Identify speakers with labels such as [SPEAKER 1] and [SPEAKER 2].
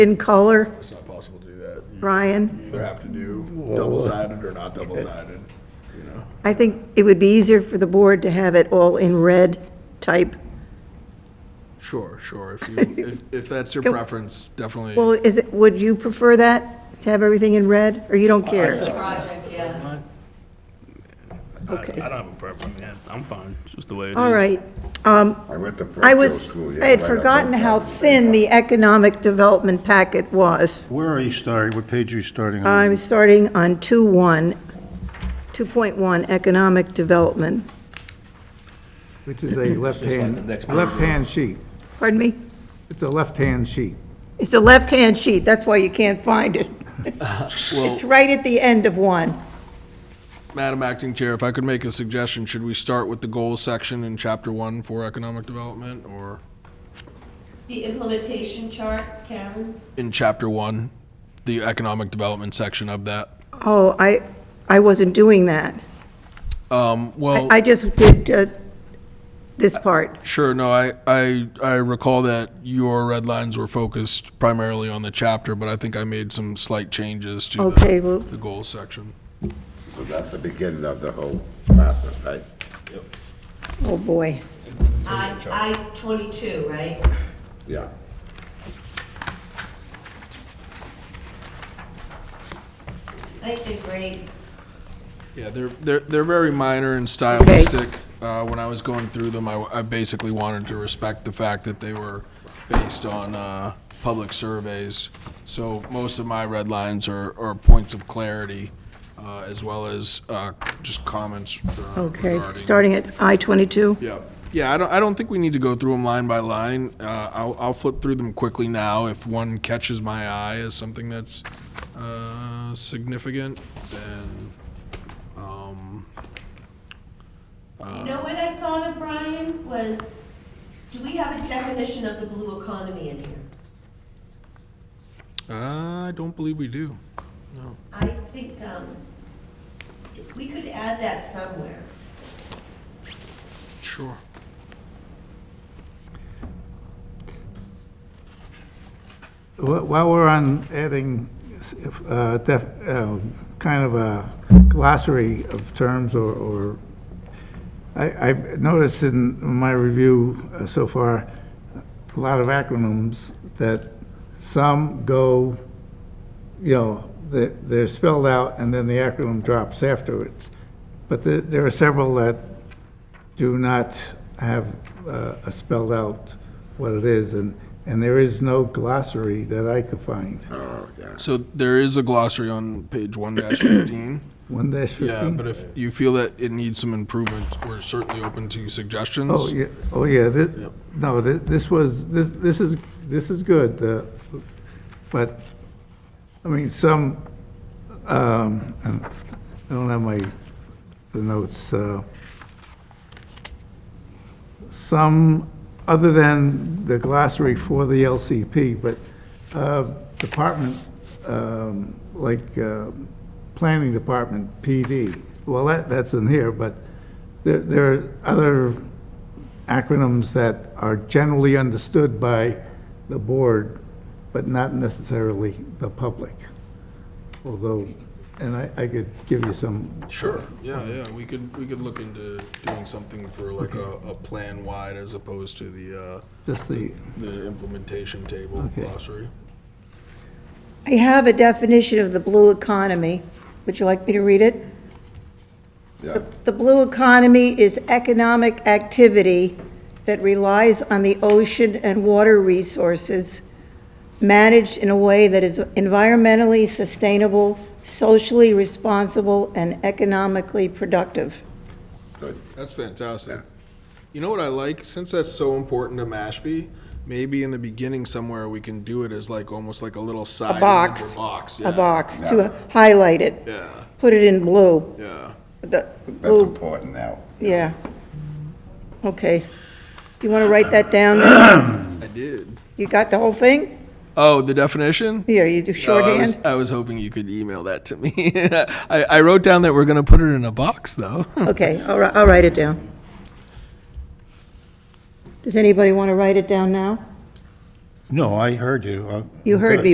[SPEAKER 1] in color,
[SPEAKER 2] It's not possible to do that.
[SPEAKER 1] Ryan?
[SPEAKER 2] You either have to do double-sided or not double-sided, you know?
[SPEAKER 1] I think it would be easier for the board to have it all in red type.
[SPEAKER 2] Sure, sure. If you, if, if that's your
[SPEAKER 1] Can-
[SPEAKER 2] preference, definitely.
[SPEAKER 1] Well, is it, would you prefer that, to have everything in red, or you don't care?
[SPEAKER 3] project, yeah.
[SPEAKER 4] I-
[SPEAKER 1] Okay.
[SPEAKER 4] I don't have a problem, yeah, I'm fine, it's just the way it is.
[SPEAKER 1] All right. um,
[SPEAKER 5] I went to
[SPEAKER 1] I
[SPEAKER 5] parochial
[SPEAKER 1] was,
[SPEAKER 5] school. yeah,
[SPEAKER 1] I had
[SPEAKER 5] right up
[SPEAKER 1] forgotten
[SPEAKER 5] north
[SPEAKER 1] how
[SPEAKER 5] of-
[SPEAKER 1] thin the economic development packet was.
[SPEAKER 6] Where are you starting? What page are you starting on?
[SPEAKER 1] I'm starting on 2.1, 2.1 economic development.
[SPEAKER 7] Which is a left-hand, left-hand sheet.
[SPEAKER 1] Pardon me?
[SPEAKER 7] It's a left-hand sheet.
[SPEAKER 1] It's a left-hand sheet, that's why you can't find it. It's right at the end of one.
[SPEAKER 2] Madam Acting Chair, if I could make a suggestion, should we start with the goals section in chapter one for economic development or
[SPEAKER 3] The implementation chart, Karen?
[SPEAKER 2] in chapter one, the economic development section of that?
[SPEAKER 1] Oh, I, I wasn't doing that.
[SPEAKER 2] Um, well,
[SPEAKER 1] I just did uh, this part.
[SPEAKER 2] sure, no, I, I, I recall that your red lines were focused primarily on the chapter, but I think I made some slight changes to
[SPEAKER 1] Okay,
[SPEAKER 2] the,
[SPEAKER 1] well-
[SPEAKER 2] the goals section.
[SPEAKER 5] So that's the beginning of the whole process, right?
[SPEAKER 1] Oh, boy.
[SPEAKER 3] I, I twenty-two, right?
[SPEAKER 5] Yeah.
[SPEAKER 3] I think they're great.
[SPEAKER 2] Yeah, they're, they're, they're very minor and stylistic. Uh, when I was going through them, I, I basically wanted to respect the fact that they were based on, uh, public surveys. So most of my red lines are, are points of clarity, uh, as well as, uh, just comments uh,
[SPEAKER 1] Okay,
[SPEAKER 2] regarding.
[SPEAKER 1] starting at I-22?
[SPEAKER 2] Yeah, yeah, I don't, I don't think we need to go through them line by line. Uh, I'll, I'll flip through them quickly now. If one catches my eye as something that's, uh, significant, then, um,
[SPEAKER 3] You know what I thought of, Brian, was, do we have a definition of the blue economy in here?
[SPEAKER 2] I don't believe we do.
[SPEAKER 3] I think, um, if we could add that somewhere.
[SPEAKER 2] Sure.
[SPEAKER 7] Wh- While we're on adding s- if, uh, def- uh, kind of a glossary of terms or- or, I- I've noticed in my review uh, so far, a lot of acronyms that some go, you know, they- they're spelled out and then the acronym drops afterwards. But there- there are several that do not have uh, a spelled out what it is, and, and there is no glossary that I could find.
[SPEAKER 5] Oh, yeah.
[SPEAKER 2] So there is a glossary on page one dash fifteen.
[SPEAKER 7] One dash
[SPEAKER 2] Yeah, but
[SPEAKER 7] fifteen?
[SPEAKER 2] if you feel that it needs some improvement, we're certainly open to suggestions.
[SPEAKER 7] Oh, yeah, oh, yeah, this, no, thi- this was, this, this is, this is good, uh, but, I mean, some, um, and I don't have my, the notes, uh, some, other than the glossary for the LCP, but uh, department, um, like uh, Planning Department, PD, well, that, that's in here, but there, there are other acronyms that are generally understood by the board, but not necessarily the public. Although, and I, I could give you some,
[SPEAKER 2] Sure, yeah, yeah, we could, we could look into doing something for like a, a plan wide as opposed to the, uh,
[SPEAKER 7] just the,
[SPEAKER 2] the implementation table
[SPEAKER 7] Okay.
[SPEAKER 2] glossary.
[SPEAKER 1] I have a definition of the blue economy. Would you like me to read it?
[SPEAKER 5] Yeah.
[SPEAKER 1] The blue economy is economic activity that relies on the ocean and water resources managed in a way that is environmentally sustainable, socially responsible, and economically productive.
[SPEAKER 5] Good.
[SPEAKER 2] That's fantastic. You know what I like? Since that's so important to Mashpee, maybe in the beginning somewhere we can do it as like, almost like a little side.
[SPEAKER 1] box.
[SPEAKER 2] Box, yeah.
[SPEAKER 1] A box to highlight it,
[SPEAKER 2] Yeah,
[SPEAKER 1] put it in blue,
[SPEAKER 2] yeah.
[SPEAKER 1] the
[SPEAKER 5] That's
[SPEAKER 1] blue,
[SPEAKER 5] important now.
[SPEAKER 1] yeah. Okay. Do you want to write that down?
[SPEAKER 2] I did.
[SPEAKER 1] You got the whole thing?
[SPEAKER 2] Oh, the definition?
[SPEAKER 1] Here, you do
[SPEAKER 2] No, I was,
[SPEAKER 1] shorthand?
[SPEAKER 2] I was hoping you could email that to me. I, I wrote down that we're going to put it in a box, though.
[SPEAKER 1] Okay, I'll, wri- I'll write it down. Does anybody want to write it down now?
[SPEAKER 6] No, I heard you. I-
[SPEAKER 1] You heard me,